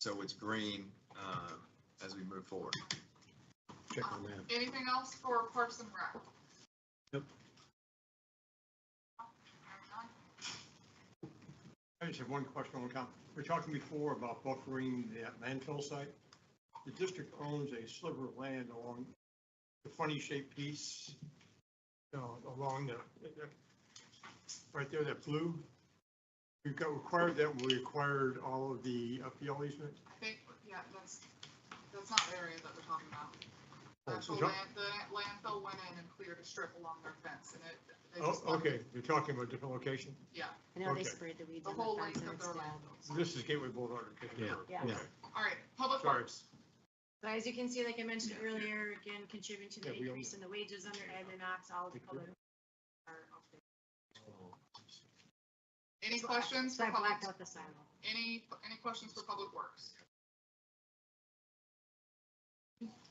so it's green um, as we move forward. Check on that. Anything else for Parks and Rec? Nope. I just have one question, one comment. We We're talking before about buffering that landfill site. The district owns a sliver of land along the funny shaped piece, you know, along the, right there, that blue. We've got required that, when we acquired all of the upfield easement. I think, yeah, that's, that's not the area that we're talking about. Oh, so Actual John- land, the landfill went in and cleared a strip along their fence and it. they Oh, just left okay, you're talking about a different location. I know they Okay. sprayed the weeds The on the whole fence length and of it's their down. landfill. This is Gateway Boulevard. okay. Yeah, Yeah. Okay. All right, public Sorry. works. But as you can see, like I mentioned Yeah. earlier, again, contributing to the Yeah, we all increase in the wages under admin ops, all of the color. are up there. Any questions So for I public, blacked out the sidewalk. any, any questions for public works?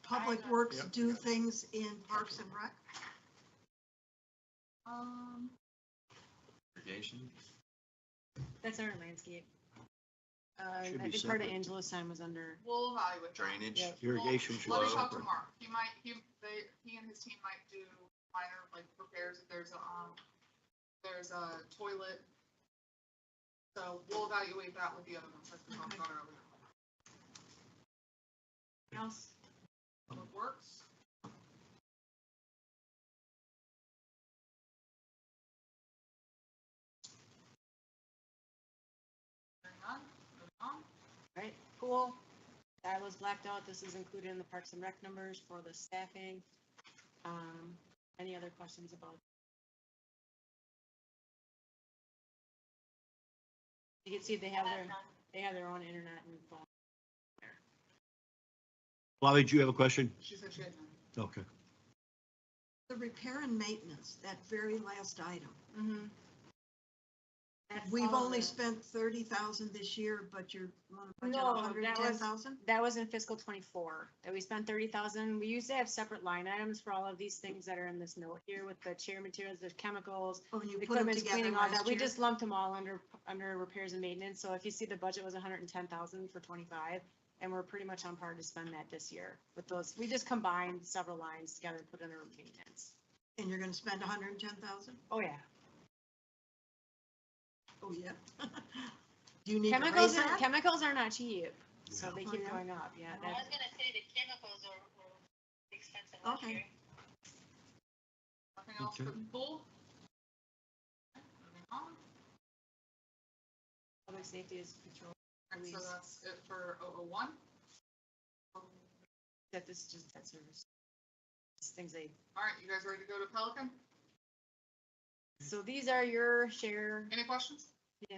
Public Works Yep. do things in Parks and Rec? Um, Irrigation? That's our landscape. Uh, Should I think be part of separate. Angela's time was under, we'll evaluate. that. Drainage? Yeah. Irrigation should Let be me talk to separate. Mark. He might, he, they, he and his team might do minor, like, repairs if there's a, um, there's a toilet. So we'll evaluate that with the other ones, like we talked about earlier. else, Public Works. Hearing none, moving on. right? Pool, that was blacked out. This is included in the Parks and Rec numbers for the staffing. Um, any other questions about? You can see they have their, they have their own internet and phone. Bobby, do you have a question? She said she had none. Okay. The repair and maintenance, that very last item. Mhm. That's Mm-hmm. We've all only the- spent thirty thousand this year, but you're on a budget No, of that hundred and ten thousand? That was in fiscal twenty-four, that we spent thirty thousand. We used to have separate line items for all of these things that are in this note here with the chair materials, the chemicals, Oh, and you the put them equipment together cleaning, all that. last We year? just lumped them all under, under repairs and maintenance. So if you see the budget was hundred and ten thousand for twenty-five, and we're pretty much on par to spend that this year with those. We just combined several lines together, and put under maintenance. And you're gonna spend hundred and ten thousand? Oh, yeah. Oh, yeah. Do you need to raise Chemicals, are- that? chemicals are not cheap, so they keep Okay. going up. Yeah, I that's was gonna say the chemicals are, were expensive last Okay. year. Nothing else for the pool? Okay, Moving on. public safety is controlled. And so Please. that's it for 001. That this is just debt service. Just things they, All right, you guys ready to go to Pelican? so these are your share, Any questions? yeah,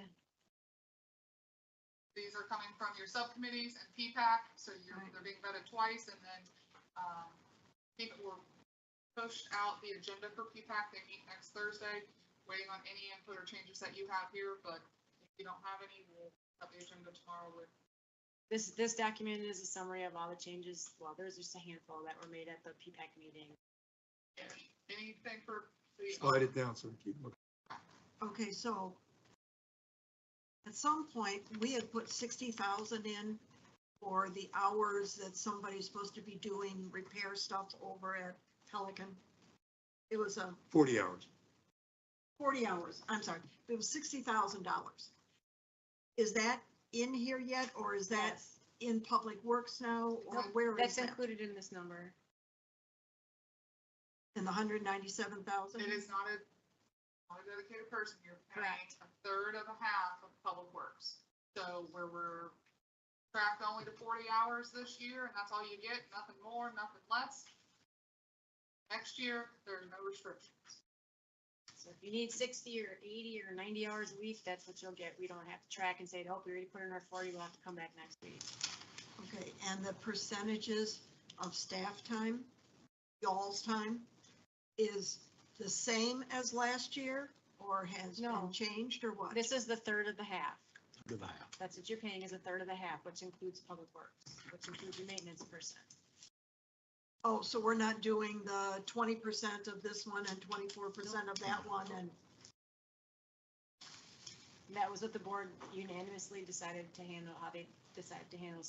These are coming from your subcommittees and PPAC, so you're, they're being vetted twice and then, um, I think we're pushed out the agenda for PPAC. They meet next Thursday, waiting on any input or changes that you have here, but if you don't have any, we'll have the agenda tomorrow with, this, this document is a summary of all the changes, well, there's just a handful that were made at the P-PAC meeting. anything for the. Slide it down so we keep looking. Okay, so at some point, we had put sixty thousand in for the hours that somebody's supposed to be doing repair stuff over at Pelican. It was a Forty hours. forty hours, I'm sorry, it was sixty thousand dollars. Is that in here yet, or is that Yes, in Public Works now, or Nope, where is That's that? included in this number. In the hundred ninety-seven thousand? It is not a, not a dedicated person, you're paying Correct. a third of a half of public works. So where we're tracked only to forty hours this year, and that's all you get, nothing more, nothing less. Next year, there are no restrictions. So if you need sixty or eighty or ninety hours a week, that's what you'll get. We don't have to track and say, oh, we already put in our forty, we'll have to come back next week. Okay, and the percentages of staff time, y'all's time, is the same as last year? Or has No. been changed or what? This is the third of the half. Goodbye. That's what you're paying is a third of the half, which includes public works, which includes your maintenance person. Oh, so we're not doing the twenty percent of this one and twenty-four percent of that one and, That was what the board unanimously decided to handle, how they decide to handle